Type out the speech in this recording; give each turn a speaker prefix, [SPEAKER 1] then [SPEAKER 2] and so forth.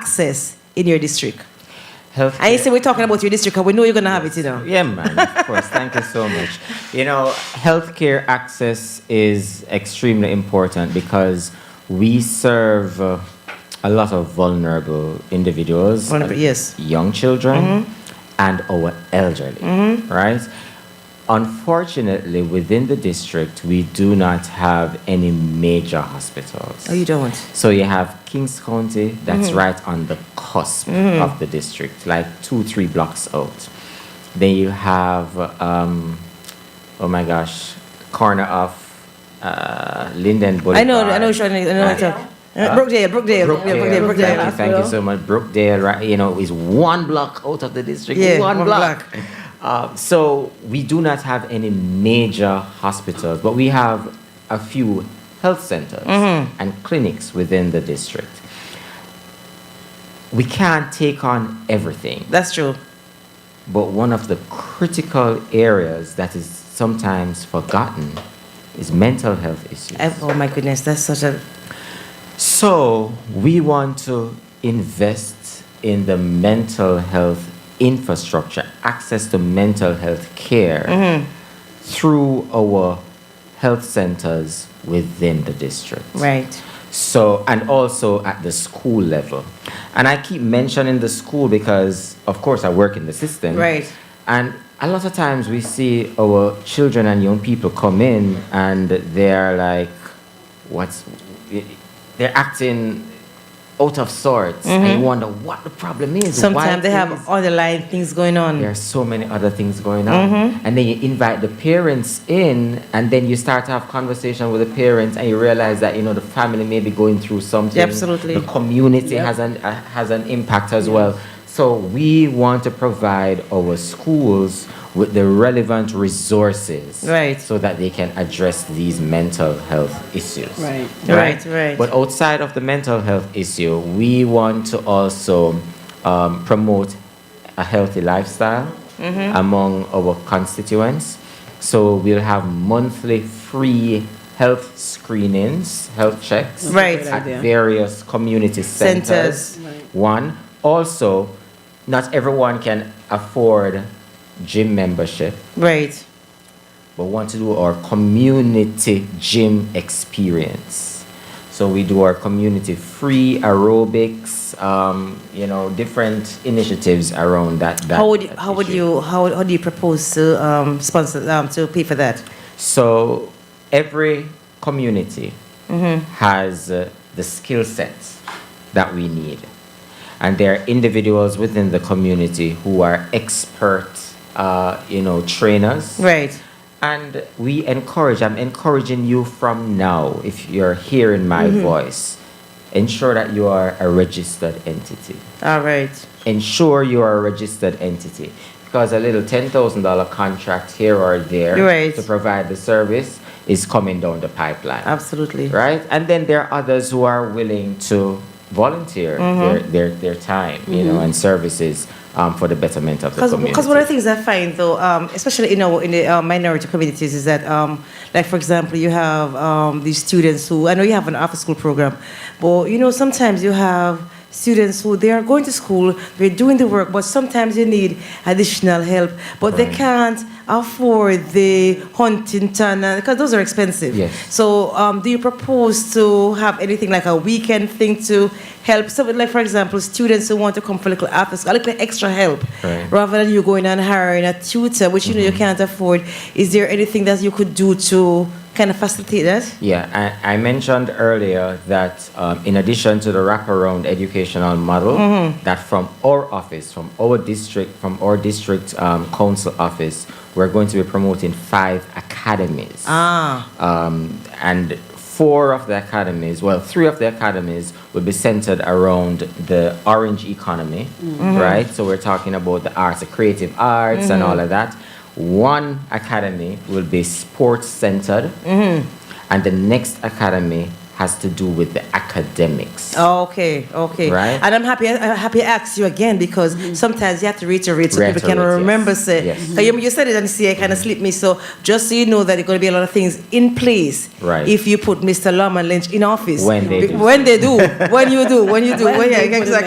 [SPEAKER 1] access in your district?
[SPEAKER 2] Healthcare.
[SPEAKER 1] And you say we're talking about your district, and we know you're gonna have it, you know.
[SPEAKER 2] Yeah, man, of course. Thank you so much. You know, healthcare access is extremely important because we serve uh, a lot of vulnerable individuals,
[SPEAKER 1] Vulnerable, Mm-hmm.
[SPEAKER 2] uh,
[SPEAKER 1] yes.
[SPEAKER 2] young children, and our elderly,
[SPEAKER 1] Mm-hmm.
[SPEAKER 2] right? Unfortunately, within the district, we do not have any major hospitals.
[SPEAKER 1] Oh, you don't.
[SPEAKER 2] So you have Kings County, that's
[SPEAKER 1] Mm-hmm.
[SPEAKER 2] right on the cusp of the district, like two, three blocks out. Then you have, um, oh my gosh, corner of uh, Linden Boulevard.
[SPEAKER 1] I know, I know, Sean, I know. what you're talking- Uh, Brookdale, Brookdale,
[SPEAKER 2] Brookdale,
[SPEAKER 1] yeah, Brookdale, Brookdale.
[SPEAKER 2] Thank, you, thank you so much. Brookdale, right, you know, is one block out of the district.
[SPEAKER 1] Yeah,
[SPEAKER 2] one,
[SPEAKER 1] one
[SPEAKER 2] block. Uh, so we do not have any major hospitals, but we have a few health centers and clinics within the district. We can't take on everything.
[SPEAKER 1] That's true.
[SPEAKER 2] But one of the critical areas that is sometimes forgotten is mental health issues.
[SPEAKER 1] I- Oh, my goodness, that's such a,
[SPEAKER 2] So we want to invest in the mental health infrastructure, access to mental health care through our health centers within the district.
[SPEAKER 1] right.
[SPEAKER 2] So, and also at the school level. And I keep mentioning the school because, of course, I work in the system.
[SPEAKER 1] Right.
[SPEAKER 2] And a lot of times we see our children and young people come in and they're like, what's, they're acting out of sorts. And you wonder what the problem is. why
[SPEAKER 1] Mm-hmm. Sometimes they
[SPEAKER 2] things-
[SPEAKER 1] have underlying things going
[SPEAKER 2] there
[SPEAKER 1] on.
[SPEAKER 2] are so many other things going on.
[SPEAKER 1] Mm-hmm.
[SPEAKER 2] And then you invite the parents in, and then you start to have conversation with the parents, and you realize that you know the family may be going through something.
[SPEAKER 1] Absolutely.
[SPEAKER 2] the community has an uh, has an impact as well. So we want to provide our schools with the relevant resources,
[SPEAKER 1] Right.
[SPEAKER 2] so that they can address these mental health issues.
[SPEAKER 3] Right.
[SPEAKER 1] Right, right.
[SPEAKER 2] But outside of the mental health issue, we want to also um, promote a healthy lifestyle
[SPEAKER 1] Mm-hmm.
[SPEAKER 2] among our constituents. So we'll have monthly free health screenings, health checks
[SPEAKER 1] a Right. great
[SPEAKER 2] at
[SPEAKER 3] idea.
[SPEAKER 2] various community centers.
[SPEAKER 1] Centers.
[SPEAKER 2] One, also, not everyone can afford gym membership
[SPEAKER 1] Right.
[SPEAKER 2] but want to do our community gym experience. So we do our community free aerobics, um, you know, different initiatives around that. that
[SPEAKER 1] How would, you-
[SPEAKER 2] that
[SPEAKER 1] how would
[SPEAKER 2] issue.
[SPEAKER 1] you, how, how do you propose to, um, sponsor, um, to pay for that?
[SPEAKER 2] So every community
[SPEAKER 1] Mm-hmm.
[SPEAKER 2] has uh, the skill sets that we need. And there are individuals within the community who are expert, uh, you know, trainers.
[SPEAKER 1] Right.
[SPEAKER 2] And we encourage, I'm encouraging you from now, if you're hearing my
[SPEAKER 1] Mm-hmm.
[SPEAKER 2] voice, ensure that you are a registered entity.
[SPEAKER 1] All right.
[SPEAKER 2] Ensure you are a registered entity. Because a little $10,000 contract here or there
[SPEAKER 1] Right.
[SPEAKER 2] to provide the service is coming down the pipeline.
[SPEAKER 1] Absolutely.
[SPEAKER 2] Right? And then there are others who are willing to volunteer
[SPEAKER 1] Mm-hmm.
[SPEAKER 2] their, their, their time, you know, and services um, for the betterment of the
[SPEAKER 1] Because
[SPEAKER 2] community.
[SPEAKER 1] one of the things I find though, um, especially in our in the uh, minority communities, is that um, like for example, you have um, these students who I know you have an after school program, but you know sometimes you have students who they are going to school, they're doing the work, but sometimes you need additional help, but they can't afford the Huntington because those are expensive.
[SPEAKER 2] Yes.
[SPEAKER 1] So um, do you propose to have anything like a weekend thing to help? So like for example, students who want to come for a little after school, a little extra help
[SPEAKER 2] Right. Mm-hmm.
[SPEAKER 1] rather than you going and hiring a tutor, which you know you can't afford, is there anything that you could do to kind of facilitate that?
[SPEAKER 2] Yeah, I, I mentioned earlier that um, in addition to the wraparound educational model, that from our office, from our district, from our district um, council office, we're going to be promoting five academies.
[SPEAKER 1] Ah,
[SPEAKER 2] Um, and four of the academies, well, three of the academies will be centered around the orange economy, right? So we're talking about the arts, the creative arts, and all of that. One academy will be sports centered, and the next academy has to do with the academics.
[SPEAKER 1] Oh, okay, okay.
[SPEAKER 2] Right.
[SPEAKER 1] And I'm happy. I'm happy. I asked you again because sometimes you have to reiterate so people can
[SPEAKER 2] Reiterate, yes. Mm-hmm.
[SPEAKER 1] remember. Say,
[SPEAKER 2] Yes.
[SPEAKER 1] So you, you said it and see, I kind of slipped me. So just so you know that there are going to be a lot of things in place.
[SPEAKER 2] Right.
[SPEAKER 1] If you put Mr. Lawman Lynch in office,
[SPEAKER 2] When they
[SPEAKER 1] Be-
[SPEAKER 2] do.
[SPEAKER 1] when they do, when you do, when you do, when, yeah, exactly.